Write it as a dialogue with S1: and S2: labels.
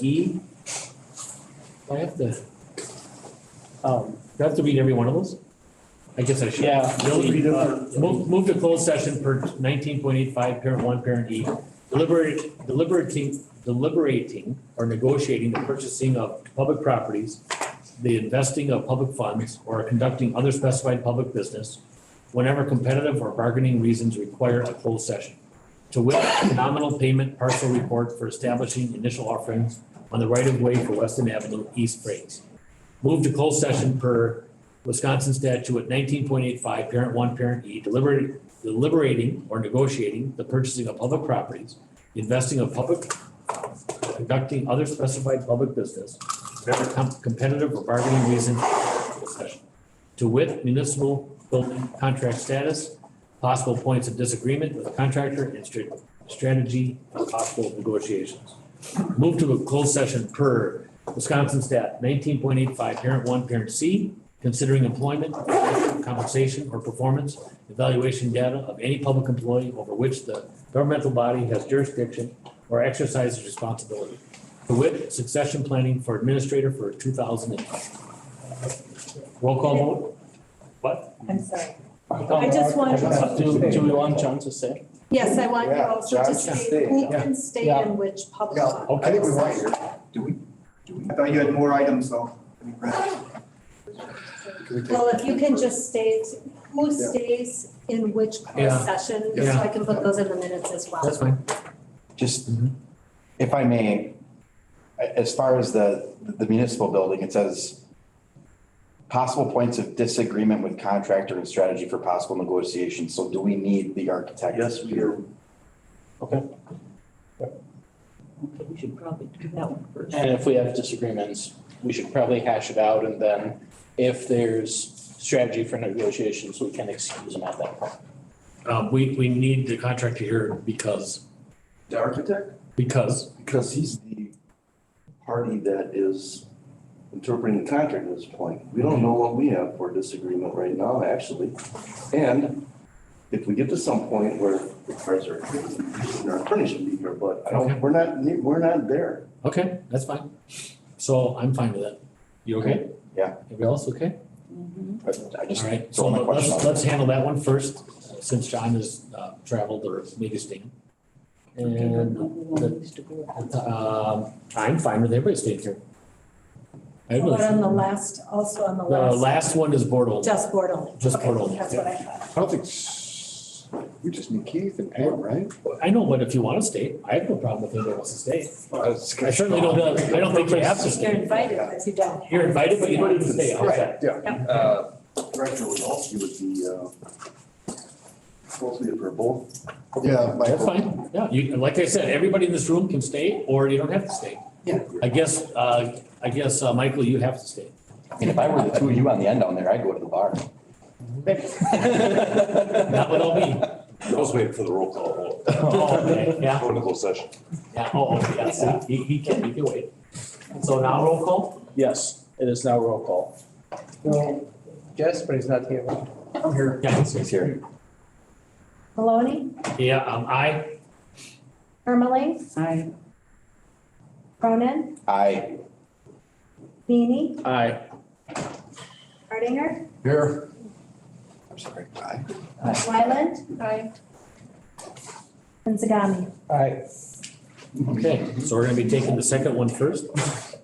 S1: E? Do I have to, um, do I have to read every one of those? I guess I should.
S2: Yeah.
S1: Really?
S2: Uh,
S1: Move, move to closed session per nineteen point eight five, parent one, parent E. Deliberate, deliberating, deliberating or negotiating the purchasing of public properties, the investing of public funds, or conducting other specified public business whenever competitive or bargaining reasons require a closed session. To wit, nominal payment parcel report for establishing initial offerings on the right of way for Weston Avenue, East Springs. Move to closed session per Wisconsin statute nineteen point eight five, parent one, parent E, deliberating, deliberating or negotiating the purchasing of public properties, investing of public, conducting other specified public business, whatever com- competitive or bargaining reason, discussion. To wit, municipal building contract status, possible points of disagreement with contractor and stra- strategy of possible negotiations. Move to a closed session per Wisconsin stat nineteen point eight five, parent one, parent C, considering employment, compensation, or performance evaluation data of any public employee over which the governmental body has jurisdiction or exercises responsibility. To wit, succession planning for administrator for two thousand and. Roll call vote? What?
S3: I'm sorry.
S2: I
S3: just want-
S2: Do, do we want John to say?
S3: Yes, I want you
S4: Yeah,
S3: also to
S4: John
S3: state who can stay
S2: Yeah.
S3: in which public.
S4: Yeah,
S3: office.
S4: I think we want you.
S5: Do we, do we? I thought you had more items though.
S3: Well, if you can just state who
S4: Yeah.
S3: stays in which closed
S1: Yeah.
S3: session, so
S1: Yeah.
S3: I can put those in the minutes as well.
S1: That's fine.
S5: Just,
S6: Mm-hmm.
S1: Mhm.
S5: if I may, a- as far as the, the municipal building, it says possible points of disagreement with contractor and strategy for possible negotiations. So do we need the architect?
S6: Yes, we do.
S7: Okay, we should probably do that one first.
S2: And if we have disagreements, we should probably hash it out and then if there's strategy for negotiations, we can excuse them at that point.
S1: Uh, we, we need the contractor here because,
S6: The architect?
S1: because,
S6: Because he's the party that is interpreting the contract at this point. We don't know what we have for disagreement right now, actually. And if we get to some point where the cards are, our attorney should be here, but I
S1: Okay.
S6: don't, we're not, we're not there.
S1: okay, that's fine. So I'm fine with that. You okay?
S5: Yeah.
S1: Everybody else okay?
S5: But I just,
S1: All right, so
S5: so my question.
S1: let's, let's handle that one first, uh, since John has uh, traveled or maybe staying. And um, I'm fine with everybody staying here. I really-
S3: But on the last, also on the
S1: The
S3: last,
S1: last one is board only.
S3: just board only.
S1: Just
S3: Okay,
S1: board only,
S3: That's what I thought.
S4: I don't think, s- we just need Keith and Pam, right?
S1: I know, but if you want to stay, I have no problem with anybody else to stay.
S4: I
S1: I certainly don't, I don't think you have to
S3: You're
S1: stay.
S3: invited, but you don't.
S1: You're invited, but you don't have to stay. How's that?
S6: Uh, Director Wazowski would be, uh, supposed to be for both.
S4: Yeah,
S1: That's
S4: Michael.
S1: fine. Yeah, you, like I said, everybody in this room can stay or you don't have to stay.
S5: Yeah.
S1: I guess, uh, I guess, uh, Michael, you have to stay.
S5: I mean, if I were the two of you on the end down there, I'd go to the bar.
S6: Mm-hmm.
S1: Not without me.
S8: I was waiting for the roll call.
S1: Oh, okay, yeah.
S8: Going to closed session.
S1: Yeah, oh, oh, yeah, see, he, he can, he can wait. So now roll call?
S2: Yes, it is now roll call.
S4: Jasper's not here.
S5: I'm here.
S1: Yes.
S5: He's here.
S3: Maloney,
S1: Yeah, um, I,
S3: Ermeling,
S7: I,
S3: Cronin,
S5: I.
S3: Beanie,
S2: Aye.
S3: Hardinger,
S4: Here.
S5: I'm sorry. I.
S3: Wyland. Aye. And Zagami.
S4: All right.
S1: okay, so we're gonna be taking the second one first.